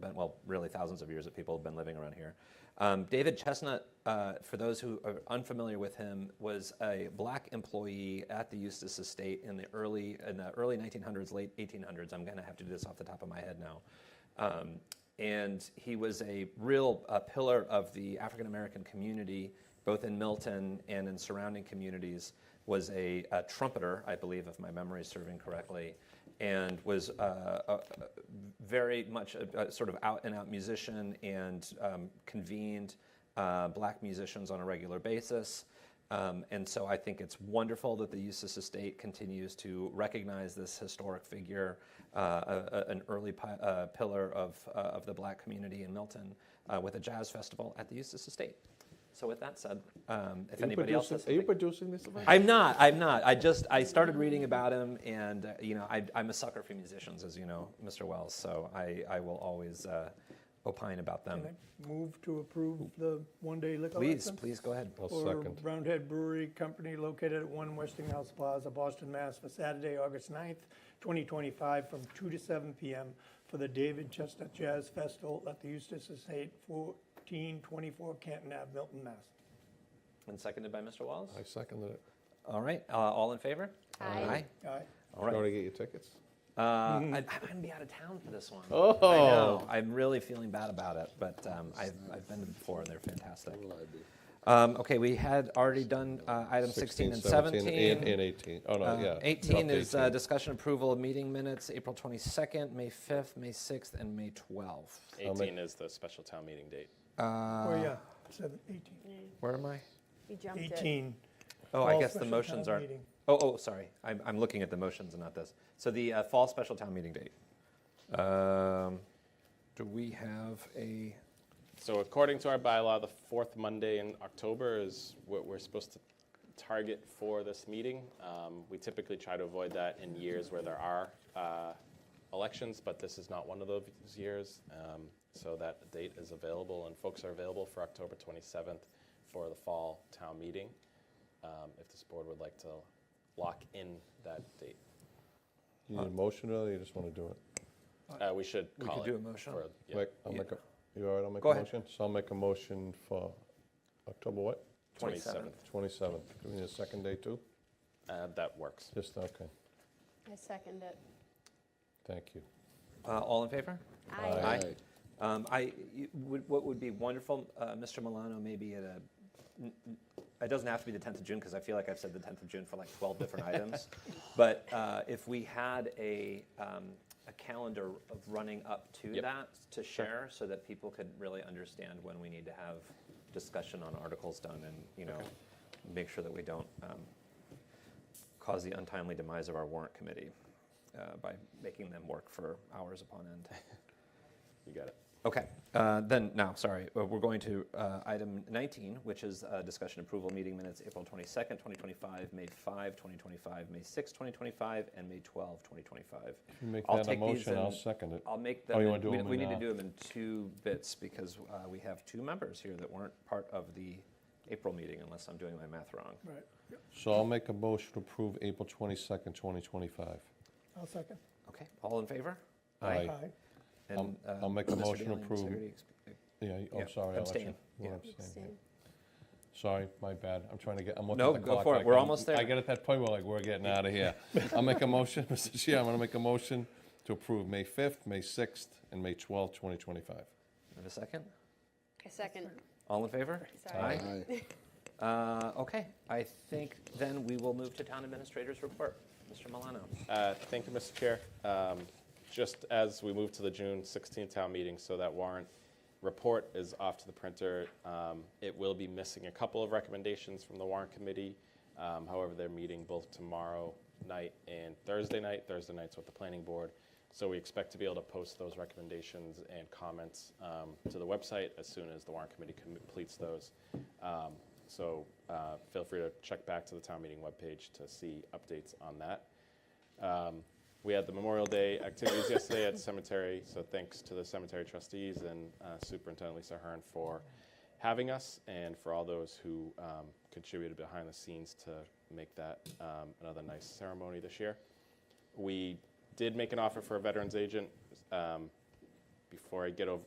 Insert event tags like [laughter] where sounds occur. been, well, really thousands of years that people have been living around here. Um, David Chestnut, uh, for those who are unfamiliar with him, was a black employee at the Eustis Estate in the early in the early 1900s, late 1800s. I'm going to have to do this off the top of my head now. Um, and he was a real uh, pillar of the African American community, both in Milton and in surrounding communities. Was a, a trumpeter, I believe, if my memory is serving correctly, and was uh, a, a very much a, a sort of out and out musician and um, convened uh, black musicians on a regular basis. Um, and so I think it's wonderful that the Eustis Estate continues to recognize this historic figure, uh, a- a- an early pi- uh, pillar of, uh, of the black community in Milton, uh, with a jazz festival at the Eustis Estate. So with that said, um, if Are you, anybody else has producing, are you something- producing this event? I'm not. I'm not. I just I started reading about him, and uh, you know I, I'm a sucker for musicians, as you know, Mr. Wells. So I I will always uh, opine about them. Can I Move to approve the one-day liquor license? Please, please go ahead. I'll For second. Roundhead Brewery Company located at 1 Westinghouse Plaza, Boston, Mass. for Saturday, August 9th, 2025, from 2 to 7 p.m. for the David Chestnut Jazz Festival at the Eustis Estate, 1424 Canton Ave, Milton, Mass. And seconded by Mr. Wells. I seconded it. All right. Uh, all in favor? Aye. All right. All You right. want to get your tickets? Uh, I, I'm going to be out of town for this one. Mm-hmm. Oh. I know. I'm really feeling bad about it, but um, I've, I've been to before and they're fantastic. Um, okay, we had already done uh, item 16, and 17. And, and 18. Oh, no, Uh, yeah. 18 dropped is uh, 18. discussion approval of meeting minutes, April 22nd, May 5th, May 6th, and May 12th. 18 is the special town meeting date. Uh, Ah. Oh, yeah, Seven- 18. Where am I? You jumped it. 18. Oh, I Fall guess the special motions town aren't. meeting. Oh, oh, sorry. I'm, I'm looking at the motions and not this. So the uh, fall special town meeting date. Um, do we have a? So according to our bylaw, the fourth Monday in October is what we're supposed to target for this meeting. Um, We typically try to avoid that in years where there are uh, elections, but this is not one of those years. Um, So that date is available, and folks are available for October 27th for the fall town meeting, um, if this board would like to lock in that date. You need a motion or you just want to do it? Uh, We should We call could it do a motion. for- yeah. Mike, I'll Yeah. make a, you all right, I'll make Go a ahead. motion? So I'll make a motion for October what? 27th. 27th. Do we need a second day too? Uh, That works. Just, okay, I second it. thank you. Uh, all in favor? Aye. Aye. Um, I, you- would- what would be wonderful, uh, Mr. Milano, maybe at a, n- n- it doesn't have to be the 10th of June, because I feel like I've said the 10th of June for like 12 different items. But uh, if we had a, um, a calendar of running up to Yep. that to share, so that people could really understand when we need to have discussion on articles done and, you know, make sure that we don't um, cause the untimely demise of our warrant committee uh, by making them work for hours upon end. You got it. Okay, uh, then, now, sorry, uh, we're going to uh, item 19, which is uh, discussion approval meeting minutes, April 22nd, 2025, May 5, 2025, May 6, 2025, and May 12, 2025. If you make I'll that a take these motion, I'll and- second it. I'll make Oh, them, you in- wanna do we them we in, need to uh, do them in two bits, because uh, we have two members here that weren't part of the April meeting, unless I'm doing my math wrong. Right, So I'll make a motion to approve April 22nd, 2025. I'll second. Okay, all in favor? Aye. Aye. And, I'll- uh, I'll make a Mr. motion to Daly and approve. Segretti ex- Yeah, you- Yeah, I'm sorry. I'll let you- abstain. you Yeah. abstain, yeah. Abstain. Sorry, my bad. I'm trying to get, I'm looking No, at the go clock. for it. like We're I'm- almost there. I get at that point where like, we're getting out [laughs] of here. I'll make a motion, [laughs] Mr. Chair, I'm going to make a motion to approve May 5th, May 6th, and May 12th, 2025. Have a second? I second. All in favor? Sorry. Uh, Okay, I think then we will move to town administrator's report. Mr. Milano. Uh, Thank you, Mr. Chair. Um, Just as we move to the June 16th town meeting, so that warrant report is off to the printer. um, It will be missing a couple of recommendations from the warrant committee. Um, However, they're meeting both tomorrow night and Thursday night. Thursday night's with the planning board. So we expect to be able to post those recommendations and comments um, to the website as soon as the warrant committee completes those. Um, So uh, feel free to check back to the town meeting webpage to see updates on that. Um, We had the Memorial Day activities yesterday at the cemetery, so thanks to the cemetery trustees and uh, Superintendent Lisa Hearn for having us and for all those who um, contributed behind the scenes to make that um, another nice ceremony this year. We did make an offer for a veterans agent. um, before I get over,